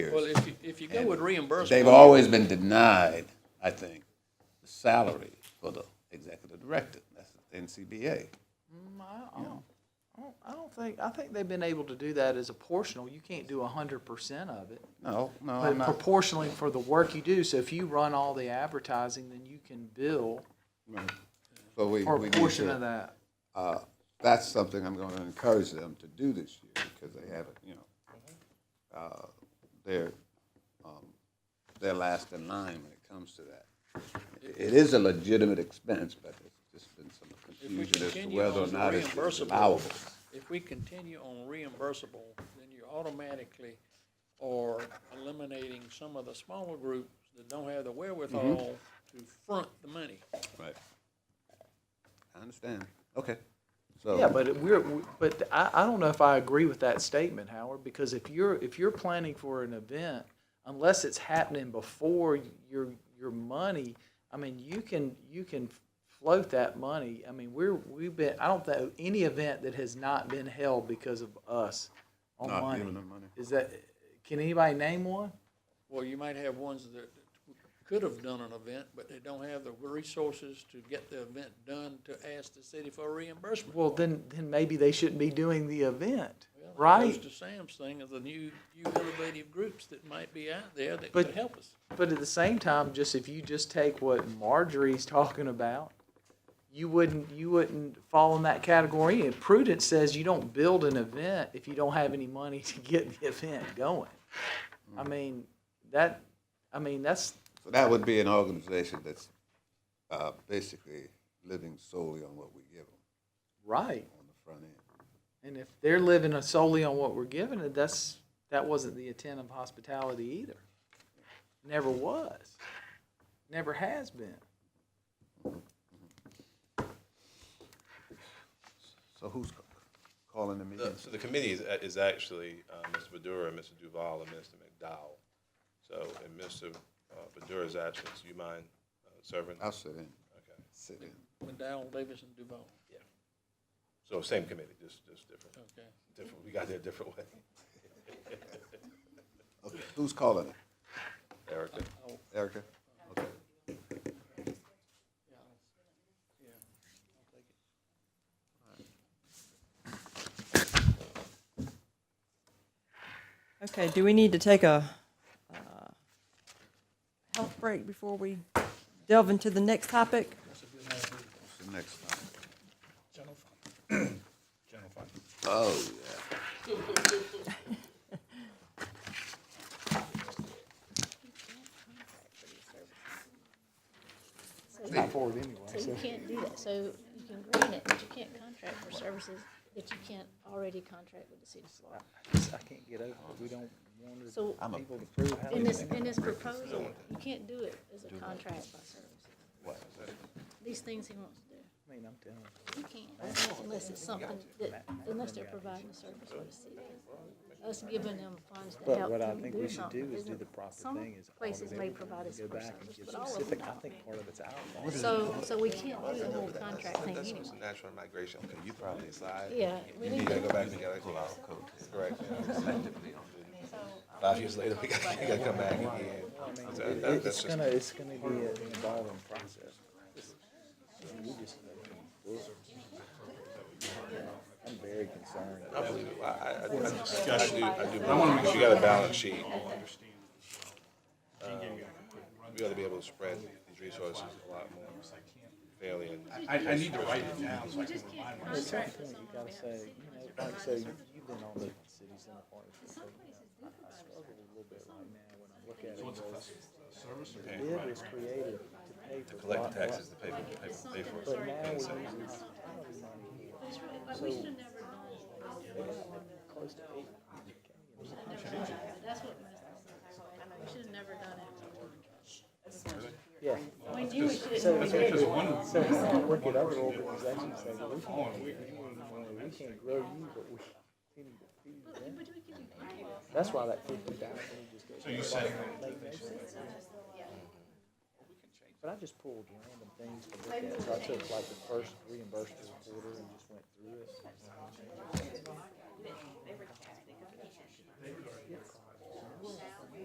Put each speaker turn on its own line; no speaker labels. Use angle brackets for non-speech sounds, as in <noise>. Well,
years.
if you, if you go with reimbursement.
They've always been denied, I think, the salary for the executive director. That's the NCBA.
I don't- I don't- I don't think, I think they've been able to do that as a portional. You can't do hundred percent of it.
No, no, I'm
But
not.
proportionally for the work you do, so if you run all the advertising, then you can bill
But we,
for
we
a
need
portion
to-
of that.
uh, that's something I'm going to encourage them to do this year because they haven't, you know, uh, they're, um, they're last in line when it comes to that. It is a legitimate expense, but there's just been some confusion as to
continue
whether or
on the
not it's
reimbursable-
allowable.
If we continue on reimbursable, then you automatically are eliminating some of the smaller groups that don't have the wherewithal
Mm-hmm.
to front the money.
Right. I understand. Okay. So.
Yeah, but it- we're, we- but I, I don't know if I agree with that statement, Howard, because if you're, if you're planning for an event, unless it's happening before your, your money, I mean, you can, you can float that money. I mean, we're, we've been, I don't know any event that has not been held because of us on
Not
money.
giving them money.
Is that, can anybody name one?
Well, you might have ones that could have done an event, but they don't have the resources to get the event done to ask the city for reimbursement.
Well, then, then maybe they shouldn't be doing the event,
Well, it
right?
Goes to Sam's thing of the new, new innovative groups that might be out there that
But-
could help us.
But at the same time, just if you just take what Marjorie's talking about, you wouldn't you wouldn't fall in that category. And prudence says you don't build an event if you don't have any money to get the event going. I mean that. I mean that's
So that would be an organization that's, uh, basically living solely on what we give them
right.
on the front end.
And if they're living solely on what we're giving, it, that's that wasn't the intent of hospitality either. Never was. Never has been.
So who's ca- calling the
The-
meeting?
So the committee is, is actually uh, Mr. Badura, Mr. Duval, and Mr. McDowell. So, and Mr. uh, Badura's absent, so you mind uh, serving?
I'll sit in,
Okay.
sit in.
McDowell, Davis, and Duval,
So same committee, just, just different,
okay.
different, we got there a different way. <laughs>
Okay, who's calling it?
Erica,
Erica? Okay.
Okay, do we need to take a uh, health break before we delve into the next topic?
What's the next one? <clears throat> General fund. General fund. Oh,
So you can't do that, so you can grant it, but you can't contract for services that you can't already contract with the city of Florida.
I can't get over. it. We don't want to
So
people to prove how
in this, in this proposal, you can't do it as a contract by services. These things he wants to do,
I mean, I'm telling you.
you can't, unless it's something that, unless they're providing a service for the city. Us giving them funds to
But
help
what I
them
think
do
we should do
something.
is do
isn't-
the proper
some
thing is
Places may provide us
Go
for
back and
services,
get
but all of them
specific. I think
don't.
part of it's out.
So, so we can't do the whole contract thing
that's
anyway.
just natural migration, okay, you throw it aside.
Yeah, we
You
need
gotta
to
go back and get a pull out code. Correct. Five years later, we gotta, you gotta come back again. So that- that's
It's
just-
gonna, it's gonna be an involving process. I'm very concerned.
I believe it. I, I, I I just, I do, I do. believe You got a balance sheet. Um, We ought to be able to spread these resources a lot more fairly and.
You just can't contract with someone
Gotta
without
say, you know, like, so you- you've been on the city center part. of it. I I struggle a little bit right now when I look at it. because the Bid was created to pay for.
Collect
lot-
the taxes to pay for, pay for, pay for it.
But now we're using hospitality money here. Close to eight hundred K.
That's what messed us up. I know, we should have never done it.
Yeah.
We knew we should have, we did.
So we can look at other organizations and say, we can't, do that. we can't grow you, but we continue to feed them. That's why that fifty thousand just goes. So you said. But I just pulled random things to look at, so I took like the first reimbursement quarter and just went through it.